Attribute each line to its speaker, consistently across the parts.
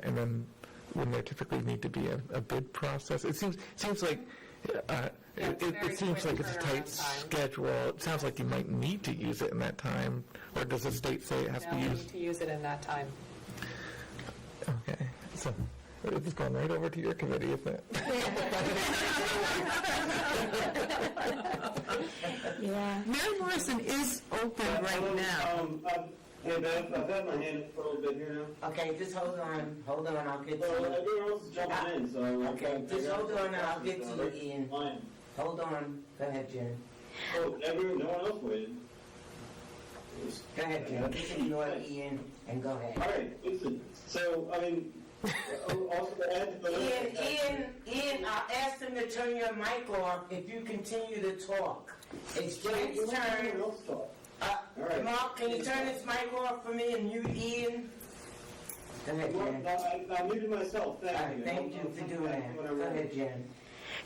Speaker 1: when, Uh, when there typically need to be a, a bid process? It seems, seems like, uh,
Speaker 2: Yeah,
Speaker 1: it,
Speaker 2: it's a
Speaker 1: it-
Speaker 2: very
Speaker 1: it seems
Speaker 2: quick
Speaker 1: like it's a
Speaker 2: turnaround time.
Speaker 1: tight schedule. It sounds like you might need to use it in that time, or does the state say it has
Speaker 2: No,
Speaker 1: to
Speaker 2: we
Speaker 1: be
Speaker 2: need
Speaker 1: used?
Speaker 2: to use it in that time.
Speaker 1: Okay, so, it's going right over to your committee, isn't it?
Speaker 3: Yeah.
Speaker 4: Mary Morrison is open right now.
Speaker 5: Um, um, Hey, Beth, I've had my hand up for a little bit here now.
Speaker 6: Okay, just hold on, hold on, I'll get
Speaker 5: So
Speaker 6: to
Speaker 5: everyone else is jumping in, so.
Speaker 6: Okay, just hold on, I'll get to you, Ian.
Speaker 5: Fine.
Speaker 6: it. Hold on, go ahead, Jen.
Speaker 5: Oh, everyone, no one else waited. Yes.
Speaker 6: Go ahead, Jen, just ignore Ian and go
Speaker 5: All
Speaker 6: ahead.
Speaker 5: right, listen, so, I mean, also to add to the.
Speaker 6: Ian, Ian, Ian, I asked him to turn your mic off if you continue to talk. It's
Speaker 5: Let
Speaker 6: Jen's
Speaker 5: everyone
Speaker 6: turn.
Speaker 5: else talk.
Speaker 6: Uh,
Speaker 5: All right.
Speaker 6: Mark, can you turn this mic off for me and mute Ian? Go ahead,
Speaker 5: Well,
Speaker 6: Jen. All
Speaker 5: I, I muted myself, thank
Speaker 6: right,
Speaker 5: you.
Speaker 6: thank you for doing that. Go ahead, Jen.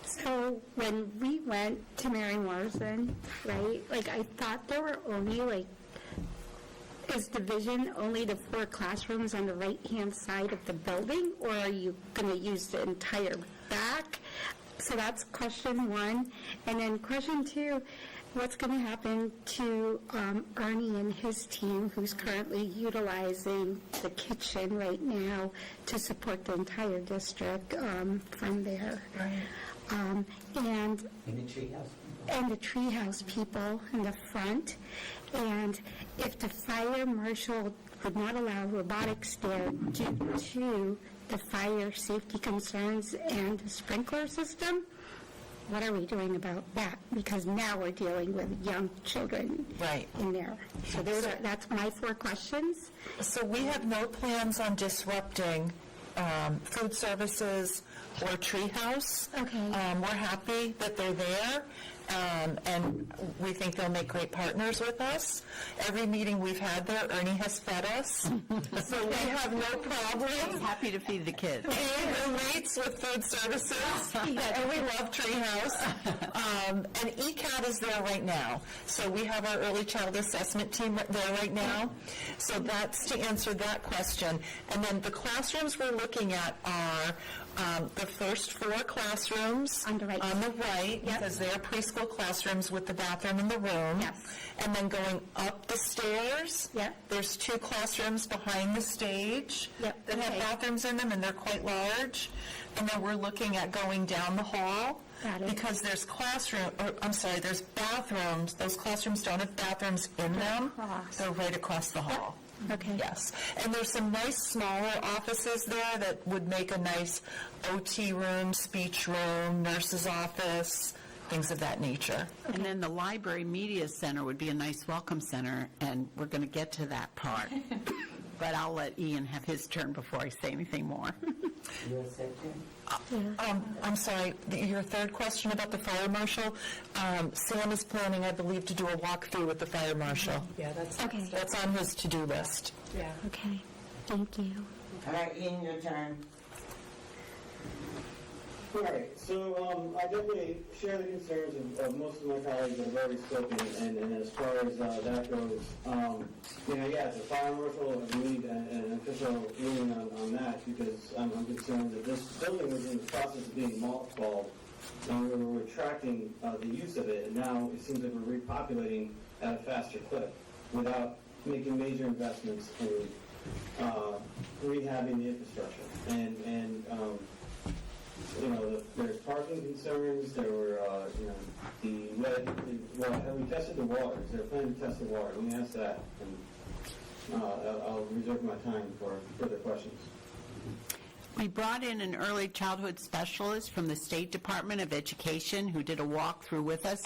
Speaker 3: So when we went to Mary Morrison, right, like I thought there were only like, is division only the four classrooms on the right-hand side of the building? Or are you going to use the entire back? So that's question one. And then question two, what's going to happen to um, Ernie and his team who's currently utilizing the kitchen right now to support the entire district um, from there? Um, and
Speaker 6: In the treehouse.
Speaker 3: and the treehouse people in the front. And if the fire marshal would not allow robotics there due to the fire safety concerns and the sprinkler system, what are we doing about that? Because now we're dealing with young children
Speaker 4: Right.
Speaker 3: in there. So those are, that's my four questions.
Speaker 4: So we have no plans on disrupting um, food services or Treehouse.
Speaker 3: Okay.
Speaker 4: Um, We're happy that they're there, um, and we think they'll make great partners with us. Every meeting we've had there, Ernie has fed us, so we have no problem.
Speaker 7: Happy to feed the kids.
Speaker 4: He relates with food services, and we love Treehouse. Um, and ECAT is there right now. So we have our early child assessment team right- there right now. So that's to answer that question. And then the classrooms we're looking at are um, the first four classrooms.
Speaker 3: On the right.
Speaker 4: On the right, because they're preschool classrooms with the bathroom in the room.
Speaker 3: Yes.
Speaker 4: And then going up the stairs.
Speaker 3: Yep.
Speaker 4: There's two classrooms behind the stage
Speaker 3: Yep,
Speaker 4: that have
Speaker 3: okay.
Speaker 4: bathrooms in them, and they're quite large. And then we're looking at going down the hall.
Speaker 3: Got it.
Speaker 4: Because there's classroom, or, I'm sorry, there's bathrooms, those classrooms don't have bathrooms in them.
Speaker 3: across.
Speaker 4: They're right across the hall.
Speaker 3: Okay.
Speaker 4: Yes. And there's some nice smaller offices there that would make a nice OT room, speech room, nurse's office, things of that nature.
Speaker 7: And then the library media center would be a nice welcome center, and we're going to get to that part. But I'll let Ian have his turn before I say anything more.
Speaker 6: You accept Jen?
Speaker 3: Mm-hmm.
Speaker 4: Um, I'm sorry, th- your third question about the fire marshal, um, Sam is planning, I believe, to do a walkthrough with the fire marshal.
Speaker 3: Mm-hmm.
Speaker 2: Yeah, that's,
Speaker 3: Okay,
Speaker 4: That's on his to-do list.
Speaker 2: yeah.
Speaker 3: okay. Thank you.
Speaker 6: All right, Ian, your turn.
Speaker 5: All right, so um, I definitely share the concerns of, of most of my colleagues that have already spoken, and, and as far as uh, that goes, um, you know, yeah, the fire marshal, we need an, an official ruling on, on that, because I'm, I'm concerned that this building was in the process of being mothballed, and we were retracting uh, the use of it, and now it seems like we're repopulating at a faster clip without making major investments in uh, rehabbing the infrastructure. And, and um, you know, there's parking concerns, there were, uh, you know, the, lead- the- well, and we tested the waters, they're planning to test the water, let me ask that, and, uh, I'll- I'll reserve my time for further questions.
Speaker 7: We brought in an early childhood specialist from the State Department of Education who did a walkthrough with us,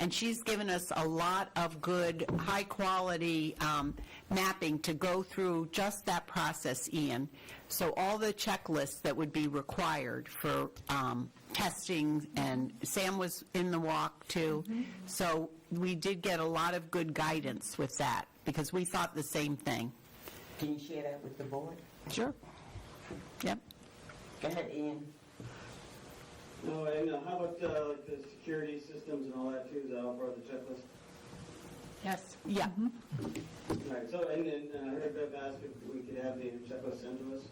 Speaker 7: and she's given us a lot of good, high-quality um, mapping to go through just that process, Ian. So all the checklists that would be required for um, testing, and Sam was in the walk, too. So we did get a lot of good guidance with that, because we thought the same thing.
Speaker 6: Can you share that with the board?
Speaker 7: Sure. Yep.
Speaker 6: Go ahead, Ian.
Speaker 5: No, and uh, how about, uh, like the security systems and all that too, is that all part of the checklist?
Speaker 7: Yes. Mm-hmm. Yeah.
Speaker 5: All right, so, and then, uh, I heard Bev asked if we could have the checklist sent to us.